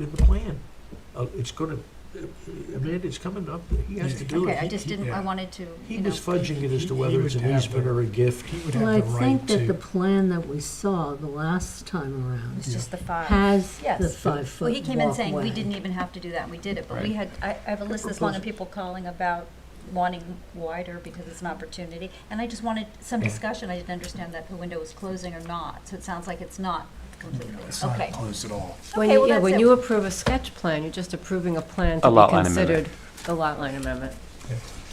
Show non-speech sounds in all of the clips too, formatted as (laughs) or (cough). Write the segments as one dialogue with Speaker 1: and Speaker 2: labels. Speaker 1: in the plan. Uh, It's gonna, Amanda, it's coming up, he has to do it.
Speaker 2: Okay, I just didn't, I
Speaker 3: yeah.
Speaker 2: wanted to,
Speaker 1: He
Speaker 2: you know.
Speaker 1: was fudging it as
Speaker 3: He-
Speaker 1: to
Speaker 3: he
Speaker 1: whether it's
Speaker 3: would
Speaker 1: an
Speaker 3: have
Speaker 1: easement
Speaker 3: the-
Speaker 1: or a gift.
Speaker 3: He would have
Speaker 4: Well,
Speaker 3: the
Speaker 4: I
Speaker 3: right to.
Speaker 4: think that the plan that we saw the last time around
Speaker 2: It's just the five.
Speaker 4: has the
Speaker 2: Yes.
Speaker 4: five-foot
Speaker 2: Well, he came in saying, we
Speaker 4: walkway.
Speaker 2: didn't even have to do that, and we did it, but we
Speaker 5: Right.
Speaker 2: had, I, I have a list this long of people calling about wanting wider because it's an opportunity, and I just wanted some
Speaker 3: Yeah.
Speaker 2: discussion, I didn't understand that the window was closing or not, so it sounds like it's not completely,
Speaker 1: Mm,
Speaker 3: It's not
Speaker 2: okay.
Speaker 3: closed at all.
Speaker 6: When
Speaker 2: Okay,
Speaker 6: you,
Speaker 2: well,
Speaker 6: yeah,
Speaker 2: that's
Speaker 6: when
Speaker 2: it.
Speaker 6: you approve a sketch plan, you're just approving a plan
Speaker 5: A
Speaker 6: to
Speaker 5: lot
Speaker 6: be
Speaker 5: line amendment.
Speaker 6: considered a lot line amendment.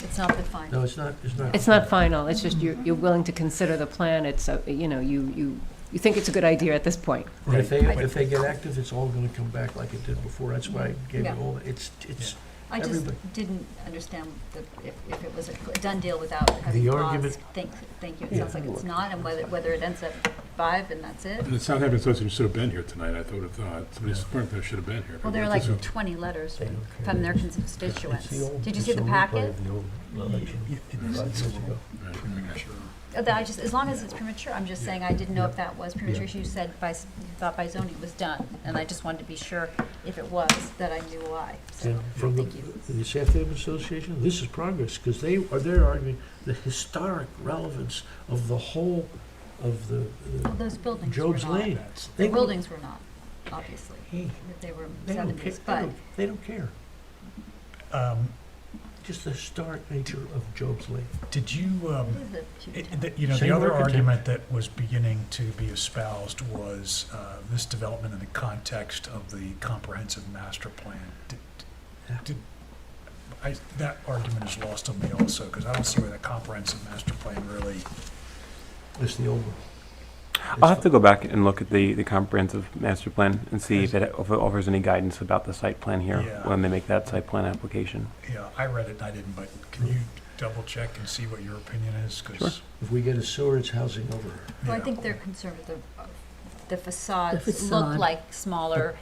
Speaker 2: It's not the final.
Speaker 1: No, it's not, it's not.
Speaker 6: It's not final, it's just you're, you're willing to consider the plan, it's, a- you know, you, you, you think it's a good idea at this point.
Speaker 1: And If they,
Speaker 2: Right.
Speaker 1: if they get active, it's all gonna come back like it did before. That's why I gave
Speaker 2: Yeah.
Speaker 1: you all, the- it's, it's,
Speaker 2: I just
Speaker 1: Everybody.
Speaker 2: didn't understand the, if, if it was a cl- done deal without having
Speaker 1: The
Speaker 2: clause.
Speaker 1: argument-
Speaker 2: Thank, thank you, it
Speaker 1: Yeah.
Speaker 2: sounds like it's not, and whether, whether it ends at five and that's it.
Speaker 7: And it's not having such, you should have been here tonight, I thought, uh, somebody's, there should have been here.
Speaker 2: Well, there are
Speaker 7: This
Speaker 2: like
Speaker 7: is-
Speaker 2: twenty letters
Speaker 1: They don't care.
Speaker 2: from their constituents. Did you see the packet?
Speaker 3: Yeah, it is. It's a little
Speaker 7: Right.
Speaker 3: premature.
Speaker 2: Uh, that I just, as long as it's premature, I'm just saying, I didn't know if that was premature. You said by, s- you thought by zoning it was done, and I just wanted to be sure if it was, that I knew why. So,
Speaker 1: And from the,
Speaker 2: thank you.
Speaker 1: the South Haven Association, this is progress, because they are, they're arguing the historic relevance of the whole, of the, the-
Speaker 2: Well, Those buildings were
Speaker 1: Job's Lane.
Speaker 2: not,
Speaker 3: That's-
Speaker 1: They
Speaker 2: the
Speaker 1: don't-
Speaker 2: buildings were not, obviously,
Speaker 1: Hey,
Speaker 2: if they were
Speaker 1: they don't care,
Speaker 2: seventies,
Speaker 1: they
Speaker 2: but,
Speaker 1: don't, they don't care.
Speaker 3: um,
Speaker 1: Just the historic nature of Job's Lane.
Speaker 3: Did you, um,
Speaker 2: it is a huge.
Speaker 3: It- that- You know, the
Speaker 1: Same
Speaker 3: other
Speaker 1: architect.
Speaker 3: argument that was beginning to be espoused was uh, this development in the context of the comprehensive master plan. Did-
Speaker 1: Yeah.
Speaker 3: did- I, that argument is lost on me also, because I don't see where the comprehensive master plan really,
Speaker 1: It's the old one.
Speaker 5: I'll have to go back and look at the, the comprehensive master plan and see if it if it offers any guidance about the site plan here
Speaker 3: Yeah.
Speaker 5: when they make that site plan application.
Speaker 3: you know, I read it and I didn't, but can you double check and see what your opinion is? 'Cause,
Speaker 5: Sure.
Speaker 1: If we get a sewer, it's housing over.
Speaker 3: you
Speaker 2: Well, I
Speaker 3: know,
Speaker 2: think they're concerned with the, the facades look
Speaker 4: facade.
Speaker 2: like smaller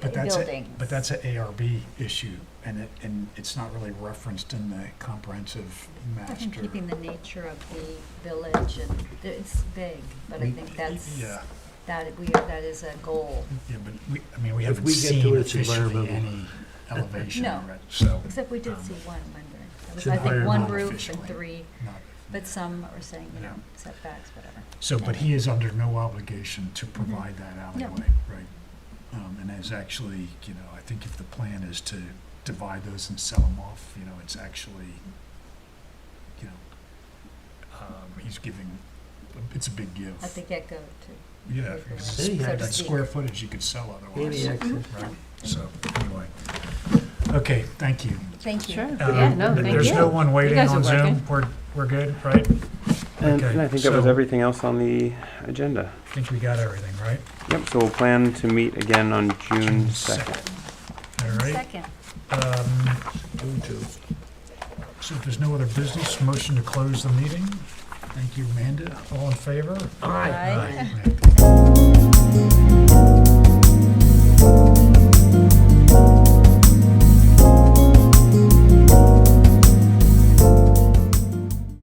Speaker 3: But that's, a-
Speaker 2: buildings.
Speaker 3: but that's an ARB issue, and it, and it's not really referenced in the comprehensive
Speaker 2: I
Speaker 3: master.
Speaker 2: think keeping the nature of the village and, it's big, but I
Speaker 1: We-
Speaker 2: think that's,
Speaker 3: Yeah.
Speaker 2: that we, that is a goal.
Speaker 3: Yeah, but we, I mean, we
Speaker 1: If
Speaker 3: haven't
Speaker 1: we get to
Speaker 3: seen
Speaker 1: it, it's
Speaker 3: officially
Speaker 1: environmental. (laughs)
Speaker 3: any elevation
Speaker 2: No.
Speaker 3: yet, so.
Speaker 2: Except we did
Speaker 3: um,
Speaker 2: see one rendering. That was,
Speaker 1: Should
Speaker 2: I think, one
Speaker 3: hire
Speaker 2: roof and
Speaker 3: officially.
Speaker 2: three,
Speaker 3: not-
Speaker 2: but some are saying, you know,
Speaker 3: Yeah.
Speaker 2: setbacks, whatever.
Speaker 3: So, but he is under no obligation to
Speaker 2: Mm-hmm.
Speaker 3: provide that alleyway, right? Um, and is actually, you know, I think if the plan is to divide those and sell them off, you know, it's actually, you know, um, he's giving, it's a big give.
Speaker 2: At the get-go, too.
Speaker 3: Yeah, because
Speaker 1: City
Speaker 3: it's-
Speaker 1: had
Speaker 3: that
Speaker 1: to-
Speaker 3: square footage you could sell
Speaker 1: Any
Speaker 3: otherwise, right?
Speaker 1: access.
Speaker 3: So, anyway. Okay, thank you.
Speaker 2: Thank you.
Speaker 6: Sure,
Speaker 3: Um,
Speaker 6: yeah, no,
Speaker 3: th-
Speaker 6: thank
Speaker 3: There's
Speaker 6: you.
Speaker 3: no one waiting
Speaker 6: guys are
Speaker 3: on Zoom.
Speaker 6: working.
Speaker 3: We're, we're good, right?
Speaker 5: And,
Speaker 3: Okay,
Speaker 5: and I think that was
Speaker 3: so-
Speaker 5: everything else on the agenda.
Speaker 3: I think we got everything, right?
Speaker 5: Yep. So we'll plan to meet again on June Mm, second.
Speaker 3: Second. All right.
Speaker 2: Second,
Speaker 3: um,
Speaker 1: June two.
Speaker 3: So if there's no other business, motion to close the meeting. Thank you, Amanda. All in favor?
Speaker 2: Aye. Aye.
Speaker 3: Aye.